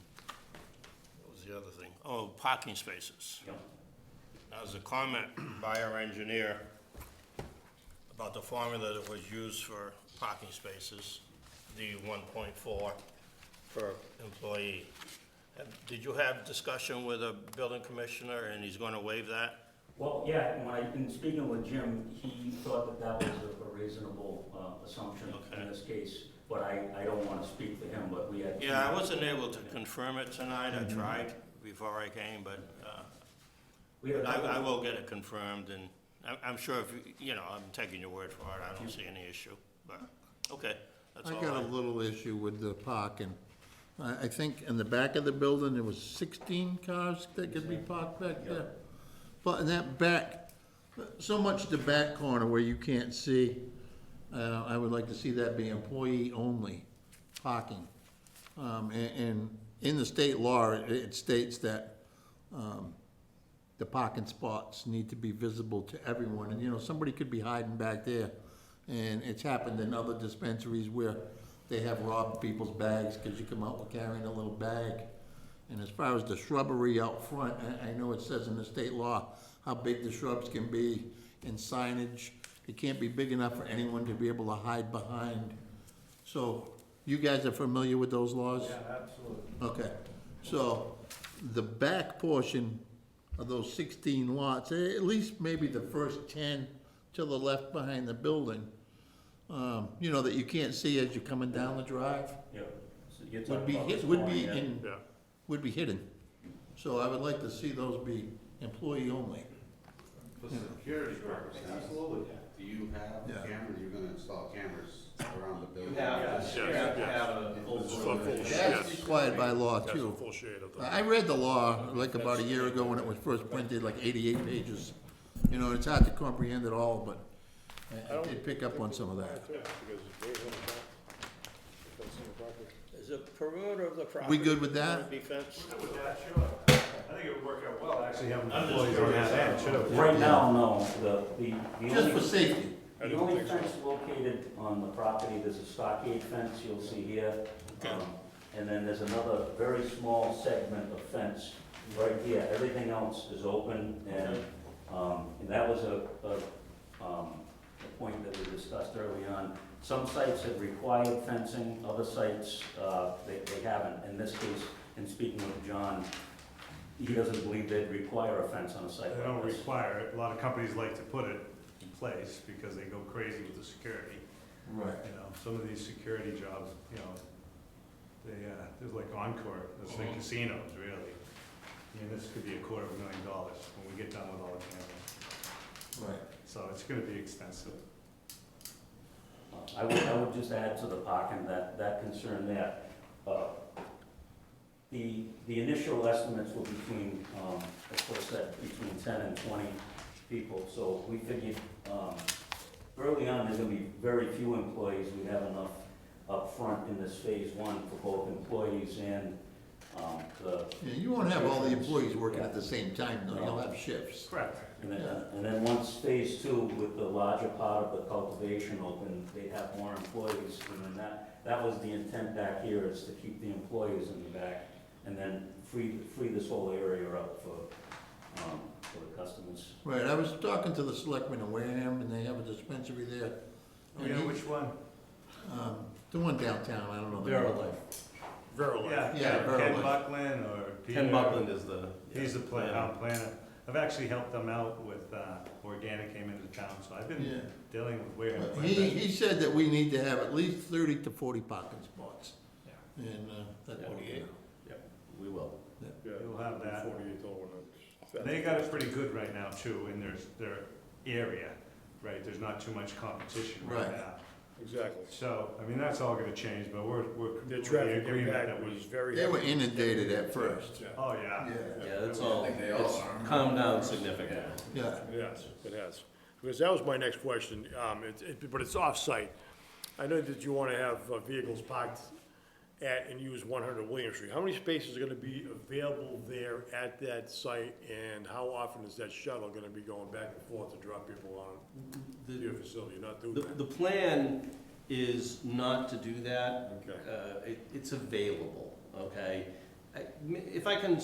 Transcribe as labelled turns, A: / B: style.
A: thing, oh, parking spaces. That was a comment by our engineer about the formula that was used for parking spaces, the one point four per employee. And Did you have discussion with a building commissioner and he's gonna waive that?
B: Well, yeah, when I, in speaking with Jim, he thought that that was a- a reasonable uh, assumption
A: Okay.
B: in this case, but I, I don't want to speak for him, but we had.
A: Yeah, I wasn't able to confirm it tonight, I tried before I came, but, uh,
B: We had a
A: I,
B: couple-
A: I will get it confirmed, and I'm, I'm sure if, you- you know, I'm taking your word for it, I don't see any issue, but, okay, that's
C: I
A: all
C: got a
A: I.
C: little issue with the parking. I, I think in the back of the building, there was sixteen cars that could be parked back there. But in that back, so much the back corner where you can't see, uh, I would like to see that be employee-only parking. Um, and, and in the state law, it- it states that, um, the parking spots need to be visible to everyone, and, you know, somebody could be hiding back there. And it's happened in other dispensaries where they have robbed people's bags, cause you come out with carrying a little bag. And as far as the shrubbery out front, I, I know it says in the state law how big the shrubs can be and signage. It can't be big enough for anyone to be able to hide behind. So, you guys are familiar with those laws?
D: absolutely.
C: Okay, so the back portion of those sixteen lots, eh, at least maybe the first ten to the left behind the building, um, you know, that you can't see as you're coming down the drive,
B: Yeah. So you're
C: would
B: talking
C: be,
B: about
C: hid-
B: this
C: would
B: morning,
C: be
B: yeah.
C: in,
A: Yeah.
C: would be hidden. So I would like to see those be employee only.
E: For security purposes,
D: Absolutely.
E: do you have
C: Yeah.
E: cameras, you're gonna install cameras around the building?
D: You have,
A: Yes,
D: you have to
A: yes.
D: have a full
E: Full-
D: board.
E: full-
C: That's
E: yes.
C: required by law too.
A: full shade of
C: I I read the law like about a year ago when it was first printed, like eighty-eight pages. You know, it's hard to comprehend it all, but I- I did pick up on some of that.
A: Is the perimeter of the property?
C: We good with that?
A: Be fenced?
D: With that, sure. I think it would work out well, actually having employees on that end, too.
B: Right now, no, the, the. the
C: Just
B: only-
C: for safety.
B: The only fence located on the property, there's a stockade fence you'll see here. um, And then there's another very small segment of fence right here. Everything else is open and, um, and that was a, a, um, a point that we discussed early on. Some sites have required fencing, other sites, uh, they, they haven't. In this case, in speaking with John, he doesn't believe they'd require a fence on a site
F: They don't
B: like this.
F: require it. A lot of companies like to put it in place because they go crazy with the security.
C: Right.
F: You know, some of these security jobs, you know, they, uh, there's like Encore, there's
C: Uh-huh.
F: like casinos, really. And this could be a quarter of a million dollars when we get done with all the cameras.
C: Right.
F: So it's gonna be expensive.
B: I would, I would just add to the parking, that, that concern there. Uh, The, the initial estimates were between, um, of course, that between ten and twenty people, so we figured, um, early on, there's gonna be very few employees, we have enough up front in this phase one for both employees and, um, the,
C: Yeah, you won't have all the employees working at the same time, though, you'll have shifts.
F: Correct.
B: And then, uh, and then once phase two, with the larger part of the cultivation open, they have more employees, and then that, that was the intent back here, is to keep the employees in the back, and then free, free this whole area up for, um, for the customers.
C: Right, I was talking to the selectmen in Wareham, and they have a dispensary there.
D: Oh, yeah, which one?
C: Um, The one downtown, I don't know. the
D: Vera
C: name.
F: Yeah,
C: Yeah,
F: Ken- Ken
C: Berlin.
F: Buckland or Peter.
D: Ken Buckland is the.
F: He's the pla-
D: planner.
F: town planner. I've actually helped them out with, uh, Organic came into town, so I've
C: Yeah.
F: been dealing with Wareham.
C: But
F: quite a
C: He,
F: bit.
C: he said that we need to have at least thirty to forty parking spots. And, uh, that's what we
A: Forty-eight.
D: We will.
F: You'll have that. They got it pretty good right now too, in their, their area, right? There's not too much competition right
C: Right.
F: now.
G: Exactly.
F: So, I mean, that's all gonna change, but we're, we're.
G: The
F: we're
G: traffic
F: agreement
G: impact
F: that we-
G: was very.
C: They were
G: heavy.
C: inundated at first.
G: Yeah,
F: Oh, yeah.
D: Yeah, that's all, it's calmed down significantly.
C: Yeah,
G: Yes, it has. Because that was my next question, um, it, it, but it's off-site. I know that you wanna have uh, vehicles parked at and use one hundred William Street. How many spaces are gonna be available there at that site? And how often is that shuttle gonna be going back and forth to drop people on to your facility, not doing
D: The,
G: that?
D: the plan is not to do that.
G: Okay.
D: Uh, it, it's available, okay? I- If I can